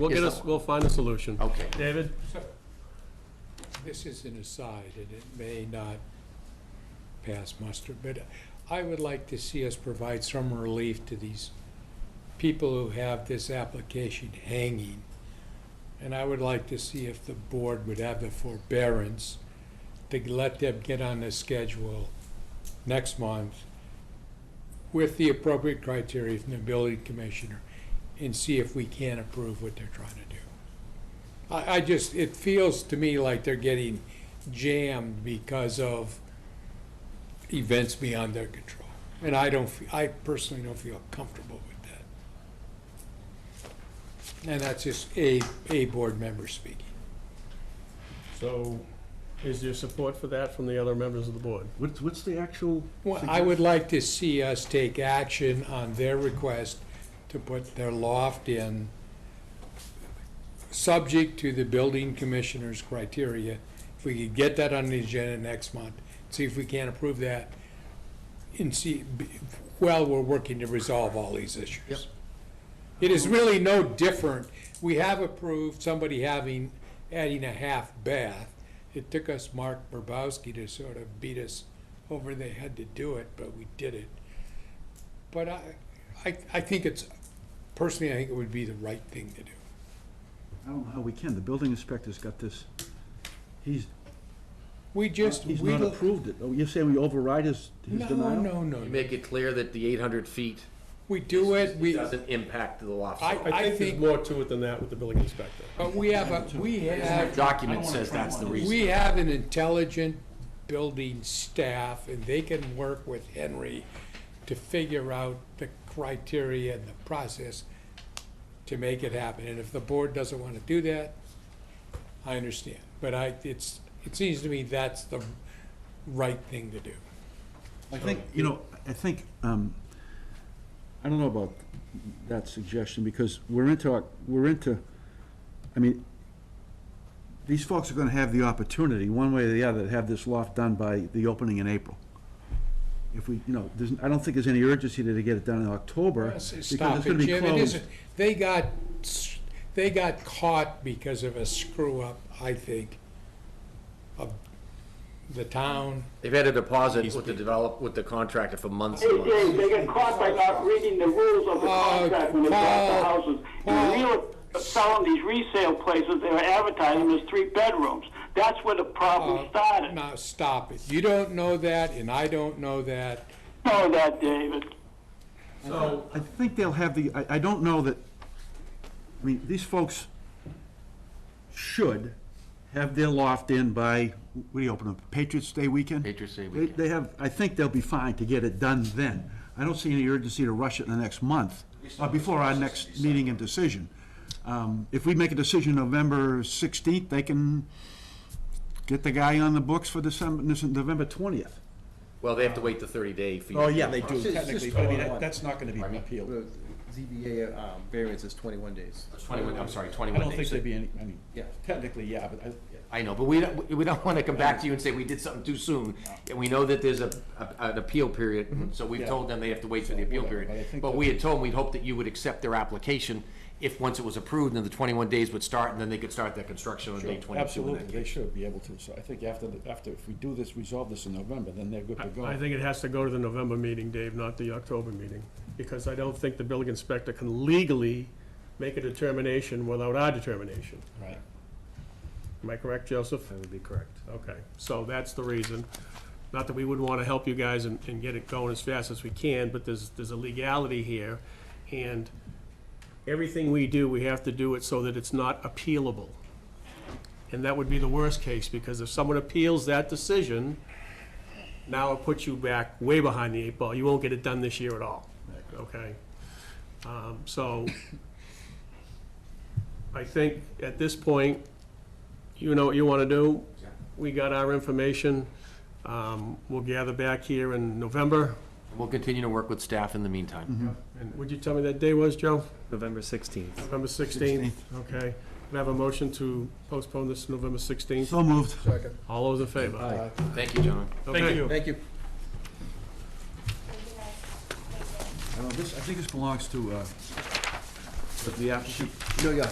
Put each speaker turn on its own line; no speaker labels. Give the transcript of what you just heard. We'll
Here's
get us,
that one.
we'll find a solution.
Oh.
Okay.
David?
This is an aside, and it may not pass muster, but I would like to see us provide some relief to these people who have this application hanging. And I would like to see if the board would have the forbearance to let them get on the schedule next month with the appropriate criteria from the building commissioner and see if we can approve what they're trying to do. I, I just, it feels to me like they're getting jammed because of events beyond their control. And I don't, fe- I personally don't feel comfortable with that. And that's just a, a board member speaking.
So, is there support for that from the other members of the board?
What's, what's the actual?
Well, I would like to see us take action on their request to put their loft in, subject to the building commissioner's criteria. If we could get that on the agenda next month, see if we can approve that, and see, well, we're working to resolve all these issues.
Yep.
It is really no different. We have approved somebody having, adding a half bath. It took us Mark Burbowski to sort of beat us over the head to do it, but we did it. But I, I, I think it's, personally, I think it would be the right thing to do.
I don't know how we can. The building inspector's got this, he's,
We just,
he's
we,
not
no,
approved it. Oh, you're saying we override his, his
no,
denial?
no,
You
no.
make it clear that the eight hundred feet
We do it, we,
doesn't impact the loft.
I-
I think there's
think-
more to it than that with the building inspector.
but we have a, we
Our
have,
document says that's the
we
reason.
have an intelligent building staff, and they can work with Henry to figure out the criteria and the process to make it happen. And if the board doesn't want to do that, I understand. But I, it's, it seems to me that's the right thing to do.
I think, you know, I think, um, I don't know about that suggestion, because we're into, our- we're into, I mean, these folks are gonna have the opportunity, one way or the other, to have this loft done by the opening in April. If we, you know, there's, I don't think there's any urgency to get it done in October, because it's
Stop
gonna
it,
be
Jim, it
closed.
isn't, they got, s- they got caught because of a screw-up, I think, of the town.
They've had a deposit with the develop, with the contractor for months
Hey,
and months.
Dave, they got caught by not reading the rules of the
Uh,
contract when they bought the
Paul,
houses.
Paul.
The real, selling these resale places, they were advertising as three bedrooms. That's where the problem
Oh.
started.
Now, stop it, you don't know that, and I don't know that,
Know that, David.
So,
I think they'll have the, I, I don't know that, I mean, these folks should have their loft in by, what do you open up, Patriots Day weekend?
Patriots Day
They-
weekend.
They have, I think they'll be fine to get it done then. I don't see any urgency to rush it in the next month, uh, before our next meeting and decision. Um, If we make a decision November sixteenth, they can get the guy on the books for December, November twentieth.
Well, they have to wait the thirty day for you.
Oh,
to
yeah,
do
they
the
do
process.
technically, but I mean, that- that's not gonna be appealed.
The ZBA um, variance is 21 days.
It's Twenty-one, I'm sorry,
I
twenty-one
don't think
days.
there'd be any, I mean,
Yeah.
technically, yeah, but I,
I know, but we don't, we don't wanna come back to you and say we did something too soon. And we know that there's a, a- an appeal period, so we've
Mm-hmm. Yeah.
told them they have to wait for the appeal
whatever, but I
period.
think
But
that-
we had told them, we'd hope that you would accept their application if, once it was approved, then the twenty-one days would start, and then they could start their construction on day twenty-two. in that
Absolutely,
case.
they should be able to, so I think after, the- after, if we do this, resolve this in November, then they're good to go.
I think it has to go to the November meeting, Dave, not the October meeting, because I don't think the building inspector can legally make a determination without our determination.
Right.
Am I correct, Joseph? That would be correct. Okay, so that's the reason. Not that we wouldn't want to help you guys and, and get it going as fast as we can, but there's, there's a legality here. And everything we do, we have to do it so that it's not appealable. And that would be the worst case, because if someone appeals that decision, now it puts you back way behind the eight ball. You won't get it done this year at all, okay? Um, so I think at this point, you know what you want to do. We got our information. Um, We'll gather back here in November.
We'll continue to work with staff in the meantime.
And would you tell me that day was, Joe?
November 16th.
November 16th? Okay. Can I have a motion to postpone this to November 16th?
So moved.
All those in favor?
Thank you, John.
Thank you.
Thank you.
I don't know, this, I think this belongs to, uh, the applicant.
No, yeah,